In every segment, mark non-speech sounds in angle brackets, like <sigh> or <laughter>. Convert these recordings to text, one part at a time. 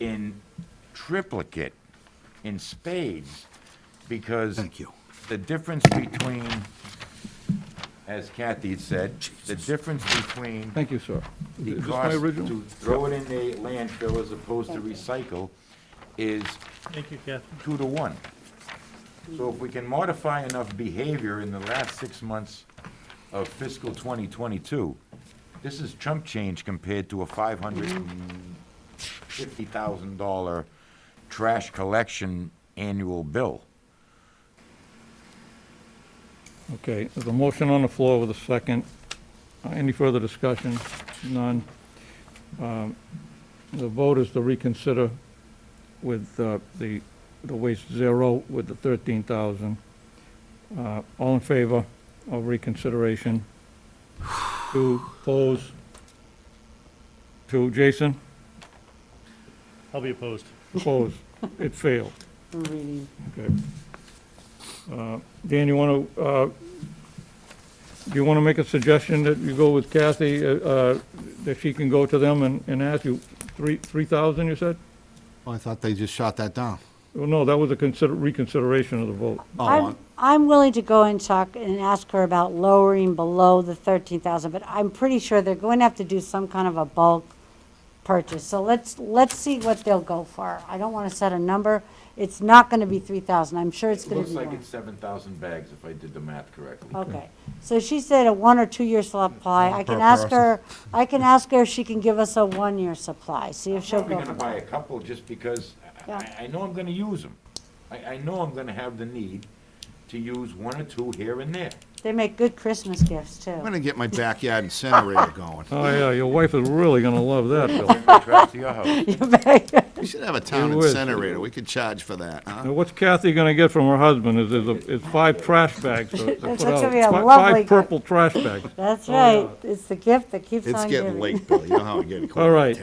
in triplicate, in spades, because. Thank you. The difference between, as Kathy had said, the difference between Thank you, sir. the Is this my cost original? to throw it in the landfill as opposed to recycle is Thank you, Catherine. two to one. So if we can modify enough behavior in the last six months of fiscal 2022, this is chump change compared to a $550,000 trash collection annual bill. Okay, there's a motion on the floor with a second. Uh, Any further discussion? None. Um, The vote is to reconsider with uh, the, the waste zero with the 13,000. Uh, All in favor of reconsideration? Two, opposed? Two, Jason? I'll be opposed. Opposed. It failed. for reading. Okay. Uh, Dan, you uh, want to, do you want to make a suggestion that you go with Kathy, uh, uh, that she can go to them and and ask you, three 3,000, you said? Well, Oh, I thought they just shot that down. Well, no, that was a consider reconsideration of the vote. Oh, I'm, I'm willing to go and talk and ask her about lowering below the 13,000, but I'm pretty sure they're going to have to do some kind of a bulk purchase. So let's, let's see what they'll go for. I don't want to set a number. It's not going to be 3,000. I'm sure it's It going looks to be like more. it's 7,000 bags if I did the math correctly. Okay. So she said a one or two-year supply. I can ask her, I can ask her if she can give us a one-year supply, see if she'll Probably go. gonna buy a couple just because I- Yeah. I, I know I'm gonna use them. I, I know I'm gonna have the need to use one or two here and <laughs> there. They make good Christmas gifts, too. I'm gonna get my backyard incinerator going. Oh, yeah, your wife is really going to love that, Bill. Bring my trash to your house. <laughs> You bet. We should have a town It would. incinerator. We could charge for that, huh? Now, what's Kathy going to get from her husband is, is a- is five trash bags to to That's put out. gonna be a Fi- lovely Five gift. purple trash bags. That's right. It's the gift that keeps Oh, It's on getting giving. late, Bill. You know how I'm getting. All right.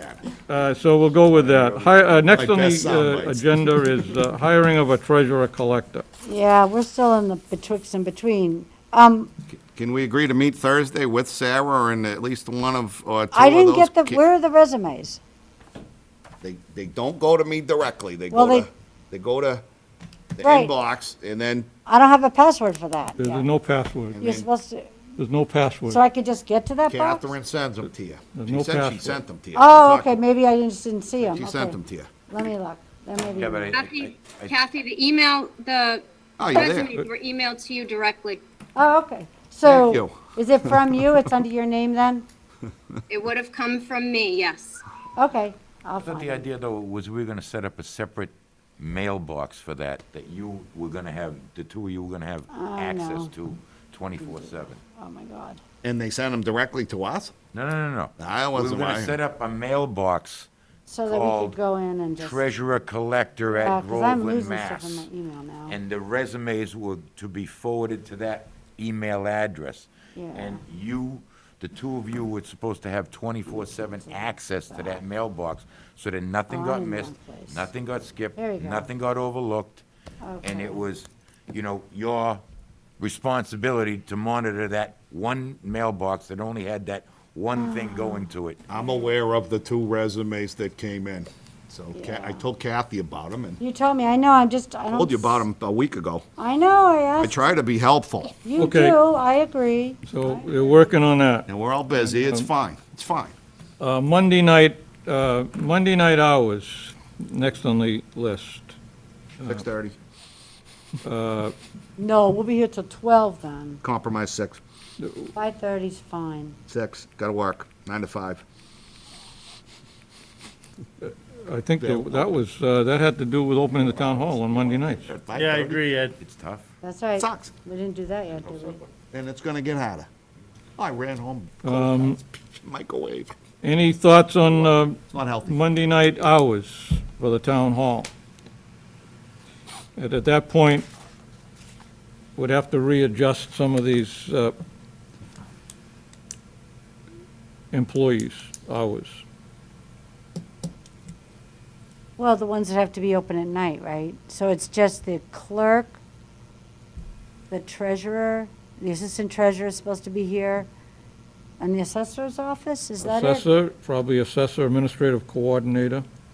Uh, So we'll go with that. Hi- uh, Next My on best sound the uh, bites. agenda is uh, hiring of a treasurer collector. Yeah, we're still in the betwixt and between. Um, Can we agree to meet Thursday with Sarah or in at least one of, or two I of didn't those? get the, ki- where are the resumes? They, they don't go to me directly. They Well, go to, they- they go to the Right. inbox and then, I don't have a password for that. There's yet. no password. You're supposed to, There's no password. so I could just get to that box? Catherine sends them to you. There's She no said she password. sent them to you. Oh, She okay, talked- maybe I just didn't see them. She sent them to you. Let me look. Let me- Yeah, but I, I- Kathy, I- Kathy, the email, the Oh, you're there. resumes were emailed to you directly. Oh, okay. So, you. is it from you? It's under your name then? It would have come from me, yes. Okay, I'll I thought find the it. idea though was we were gonna set up a separate mailbox for that, that you were gonna have, the two of you were gonna have access Oh, no. to twenty-four seven. Oh, my God. And they sent them directly to us? No, no, no, no. I We wasn't were gonna lying. set up a mailbox, So that we Called could go in and just, because treasurer collector at I'm Groveland, losing stuff in Mass. my email now. and the resumes were to be forwarded to that email address. Yeah. And you, the two of you were supposed to have twenty-four seven access to that mailbox, so that nothing All got in missed, one place. nothing got skipped, There you go. nothing got overlooked. And Okay. it was, you know, your responsibility to monitor that one mailbox that only had that one Ah. thing going to it. I'm aware of the two resumes that came in. So Ca- I Yeah. told Kathy about them and You told me, I know, I'm just, I don't. told you about s- them a week ago. I know, I I asked. try to be helpful, You Okay. do, I agree. So we're working on that. and we're all busy. Um, It's fine. It's fine. Uh, Monday night, uh, Monday night hours, next on the list. uh, Six thirty, No, we'll be here till twelve then. compromise six, Five thirty's fine. six, gotta work, nine to five. I think that that was, uh, that had to do with opening the town hall on Monday nights. Yeah, I agree, Ed. It's tough. That's right. Sucks. We didn't do that yet, did we? And it's gonna get hotter. I ran home, Um, closed the microwave. Any thoughts on uh, It's not healthy. Monday night hours for the town hall? And at that point, we'd have to readjust some of these uh, employees' hours. Well, the ones that have to be open at night, right? So it's just the clerk, the treasurer, the assistant treasurer is supposed to be here, and the assessor's office, is that it? Assessor, probably assessor, administrative coordinator.